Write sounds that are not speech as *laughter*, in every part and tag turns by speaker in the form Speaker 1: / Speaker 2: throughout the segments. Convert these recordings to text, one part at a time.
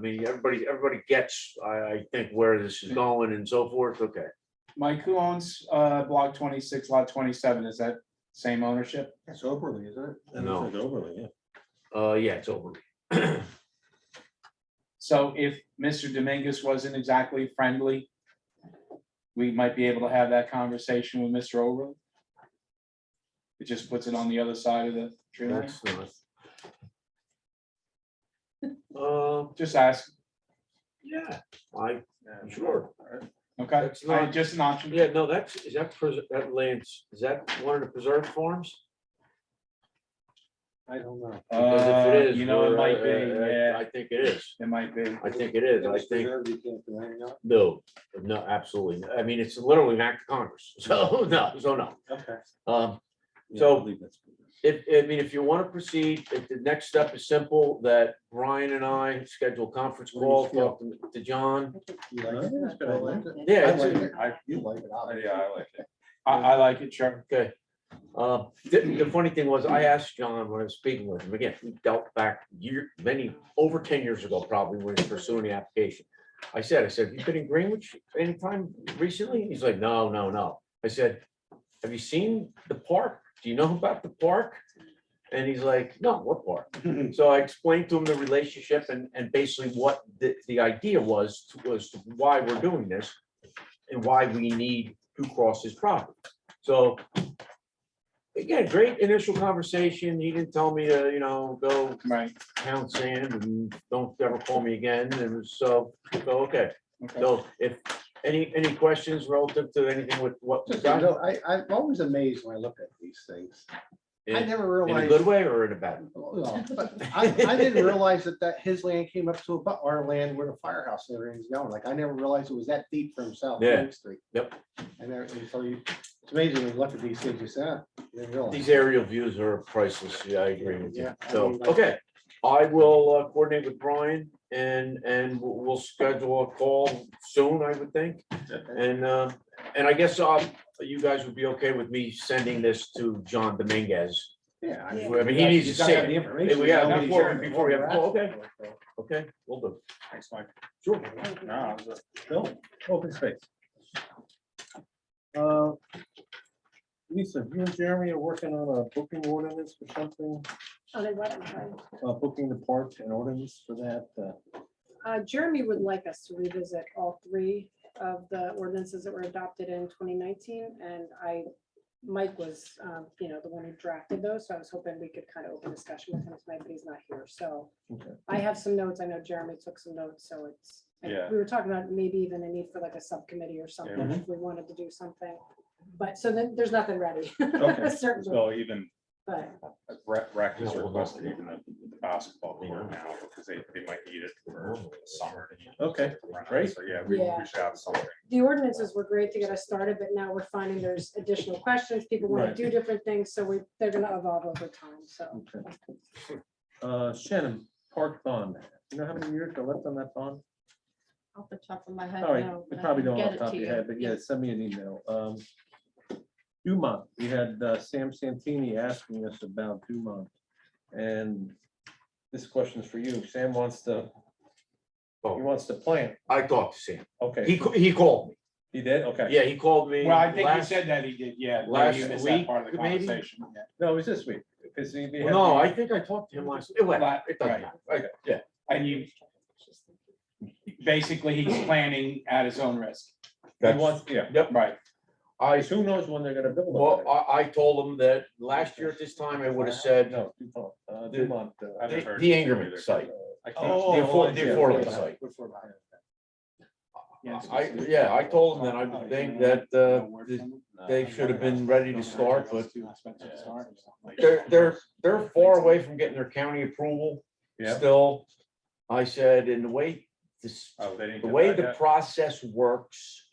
Speaker 1: mean, everybody, everybody gets, I, I think where this is going and so forth, okay.
Speaker 2: Mike, who owns uh block twenty-six, lot twenty-seven? Is that same ownership?
Speaker 3: That's overly, isn't it? That
Speaker 1: No.
Speaker 3: looks like Overly, yeah.
Speaker 1: Uh, yeah, it's over.
Speaker 2: So if Mr. Dominguez wasn't exactly friendly, we might be able to have that conversation with Mr. Overland. It just puts it on the other side of the tree line.
Speaker 1: That's not. Uh,
Speaker 2: Just ask,
Speaker 1: yeah, I, sure.
Speaker 2: okay?
Speaker 1: That's
Speaker 2: I-
Speaker 1: not-
Speaker 2: Just an option.
Speaker 1: Yeah, no, that's, is that, pres- that lands, is that one of the preserved forms?
Speaker 3: I don't know.
Speaker 1: Because if it
Speaker 2: Uh,
Speaker 1: is,
Speaker 2: You know, it
Speaker 1: we're-
Speaker 2: might be,
Speaker 1: I- I-
Speaker 2: yeah,
Speaker 1: I think it is.
Speaker 2: it might be.
Speaker 1: I think it is. I think,
Speaker 3: You can't do anything else?
Speaker 1: no, no, absolutely. I mean, it's literally an act of Congress. *laughs* So, no, so no.
Speaker 3: Okay.
Speaker 1: Um,
Speaker 3: Yeah,
Speaker 1: So-
Speaker 3: I believe that's-
Speaker 1: If, I mean, if you want to proceed, if the next step is simple, that Brian and I schedule a conference call, talk to- to John.
Speaker 3: You like it? That's been a lot.
Speaker 1: Yeah,
Speaker 3: I
Speaker 1: it's
Speaker 3: like
Speaker 1: a-
Speaker 3: it. I- You like it. obviously.
Speaker 2: Yeah, I like it. I, I like it, sure.
Speaker 1: okay. Uh, The, the funny thing was, I asked John when I was speaking with him, again, we dealt back year, many, over ten years ago probably, when he was pursuing the application. I said, I said, you been in Greenwich anytime recently? He's like, no, no, no. I said, have you seen the park? Do you know about the park? And he's like, no, what park? So I explained to him the relationship and, and basically what the, the idea was, was why we're doing this and why we need to cross his property. So again, great initial conversation. He didn't tell me to, you know, go
Speaker 2: Right,
Speaker 1: pound sand and don't ever call me again. And so, so, okay.
Speaker 2: okay.
Speaker 1: So if any, any questions relative to anything with what we
Speaker 4: *laughs* Just, you
Speaker 1: got
Speaker 4: know, I, I'm always amazed when I look at these things. I
Speaker 1: in
Speaker 4: never
Speaker 1: in a
Speaker 4: realized.
Speaker 1: good way or in a bad?
Speaker 4: Well, but I, I didn't realize that that his land came up to about our land where the firehouse and everything's going. Like, I never realized it was that deep for himself.
Speaker 1: Yeah.
Speaker 4: Main Street.
Speaker 1: Yep.
Speaker 4: And there- and so you, it's amazing when you look at these things, you say, "Ah, I didn't realize."
Speaker 1: These aerial views are priceless. Yeah, I agree with you.
Speaker 4: Yeah, I
Speaker 1: So,
Speaker 4: mean, like-
Speaker 1: okay, I will uh, coordinate with Brian and, and we'll we'll schedule a call soon, I would think. And, uh, and I guess um, you guys would be okay with me sending this to John Dominguez.
Speaker 4: Yeah.
Speaker 1: I
Speaker 4: mean,
Speaker 1: mean,
Speaker 4: you
Speaker 1: he
Speaker 4: got-
Speaker 1: needs
Speaker 4: you
Speaker 1: to
Speaker 4: gotta
Speaker 1: see
Speaker 4: have
Speaker 1: it.
Speaker 4: the information,
Speaker 1: we
Speaker 4: you
Speaker 1: have
Speaker 4: know,
Speaker 1: before-
Speaker 4: what he's-
Speaker 1: before we have-
Speaker 4: what we're
Speaker 1: okay.
Speaker 4: asking for,
Speaker 1: Okay, we'll do.
Speaker 2: Thanks, Mike.
Speaker 1: Sure.
Speaker 2: No, it was
Speaker 3: Bill, open space. Uh, Lisa, you and Jeremy are working on a booking ordinance for something,
Speaker 5: Oh, they let it go.
Speaker 3: uh, booking the park and ordinance for that, uh,
Speaker 5: Uh, Jeremy would like us to revisit all three of the ordinances that were adopted in twenty nineteen, and I, Mike was, um, you know, the one who drafted those, so I was hoping we could kind of open discussion with him tonight, but he's not here, so.
Speaker 3: Okay.
Speaker 5: I have some notes, I know Jeremy took some notes, so it's,
Speaker 2: Yeah.
Speaker 5: we were talking about maybe even a need for like a subcommittee or something,
Speaker 3: Yeah.
Speaker 5: if we wanted to do something. But, so then, there's nothing ready.
Speaker 2: Okay.
Speaker 5: *laughs* Certainly,
Speaker 2: So even
Speaker 5: but,
Speaker 2: rec, rec
Speaker 1: Yeah,
Speaker 2: is
Speaker 1: well,
Speaker 2: requested
Speaker 1: that's-
Speaker 2: even the basketball court now, because they, they might need it for summer.
Speaker 3: okay,
Speaker 2: Right,
Speaker 3: great.
Speaker 2: So, yeah, we,
Speaker 5: Yeah.
Speaker 2: we should have something.
Speaker 5: the ordinances were great to get us started, but now we're finding there's additional questions. People want
Speaker 3: Right.
Speaker 5: to do different things, so we, they're gonna evolve over time, so.
Speaker 3: Okay. Uh, Shannon, park bond, you know how many years are left on that bond?
Speaker 6: Off the top of my head.
Speaker 3: All right,
Speaker 6: no,
Speaker 3: you
Speaker 6: but I
Speaker 3: probably
Speaker 6: can
Speaker 3: don't off
Speaker 6: get
Speaker 3: the
Speaker 6: it
Speaker 3: top
Speaker 6: to
Speaker 3: of
Speaker 6: you.
Speaker 3: your head, but yeah, send me an email. Um, Dumont, we had uh, Sam Santini asking us about Dumont. And this question is for you. Sam wants to, he
Speaker 1: Oh,
Speaker 3: wants to plant.
Speaker 1: I talked to Sam. He,
Speaker 3: Okay,
Speaker 1: ca- he called me.
Speaker 3: he did? Okay.
Speaker 1: Yeah, he called me.
Speaker 2: Well, I think you
Speaker 1: last-
Speaker 2: said that he did, yeah. maybe
Speaker 1: last
Speaker 2: you missed that
Speaker 1: week,
Speaker 2: Part of the
Speaker 1: maybe?
Speaker 2: conversation. yeah.
Speaker 3: No, it was this week. Because he.
Speaker 1: Well, No, I think I talked to him last, it went,
Speaker 2: Right,
Speaker 1: it doesn't matter. Right, Yeah,
Speaker 2: And you, basically, he's planning at his own risk,
Speaker 3: He wants, yeah.
Speaker 2: right?
Speaker 1: I,
Speaker 3: Because who knows when they're gonna build. over
Speaker 1: well,
Speaker 3: there.
Speaker 1: I, I told him that last year at this time, I would have said
Speaker 3: No, Dumont, uh, Dumont. uh,
Speaker 2: I haven't
Speaker 1: the-
Speaker 2: heard
Speaker 1: the
Speaker 2: anything
Speaker 1: Ingerman
Speaker 2: either.
Speaker 1: site.
Speaker 3: I can't-
Speaker 2: Oh,
Speaker 1: The affor-
Speaker 2: oh,
Speaker 1: the
Speaker 2: yeah.
Speaker 1: affordable site.
Speaker 2: Yes.
Speaker 1: I, yeah, I told him that I would think that, uh, the- they should have been ready to start, but they're, they're, they're far away from getting their county approval
Speaker 3: Yeah.
Speaker 1: still. I said, in the way, this,
Speaker 3: Oh,
Speaker 1: the way the process works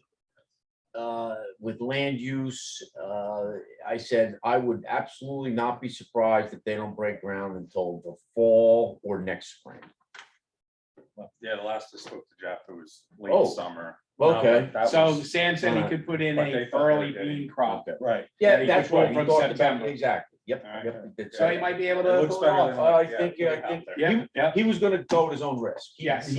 Speaker 1: uh, with land use, uh, I said, I would absolutely not be surprised if they don't break ground until the fall or next spring.
Speaker 7: Yeah, the last I spoke to Jeff, it was
Speaker 1: Oh.
Speaker 7: late summer.
Speaker 1: Okay,
Speaker 3: That
Speaker 2: So
Speaker 3: was-
Speaker 2: Sam said he
Speaker 1: Alright.
Speaker 2: could put in
Speaker 7: But
Speaker 2: a
Speaker 7: they thought they
Speaker 2: early
Speaker 7: did it.
Speaker 2: bean crop.
Speaker 1: okay.
Speaker 3: Right.
Speaker 1: Yeah,
Speaker 2: Ready
Speaker 1: that's
Speaker 2: for
Speaker 1: what
Speaker 2: it
Speaker 1: we
Speaker 2: from
Speaker 1: talked about,
Speaker 2: September.
Speaker 1: exactly, yep,
Speaker 7: Alright.
Speaker 1: yep. that's
Speaker 2: So he
Speaker 1: it.
Speaker 2: might be able
Speaker 3: It
Speaker 2: to.
Speaker 3: looks
Speaker 2: pull it
Speaker 3: better
Speaker 2: off.
Speaker 3: than-
Speaker 1: I
Speaker 7: Yeah,
Speaker 1: think,
Speaker 7: put
Speaker 1: I
Speaker 7: it out
Speaker 1: think,
Speaker 7: there.
Speaker 2: Yeah,
Speaker 1: he,
Speaker 2: yeah.
Speaker 1: he was gonna go at his own risk. He-
Speaker 2: Yes.
Speaker 1: he-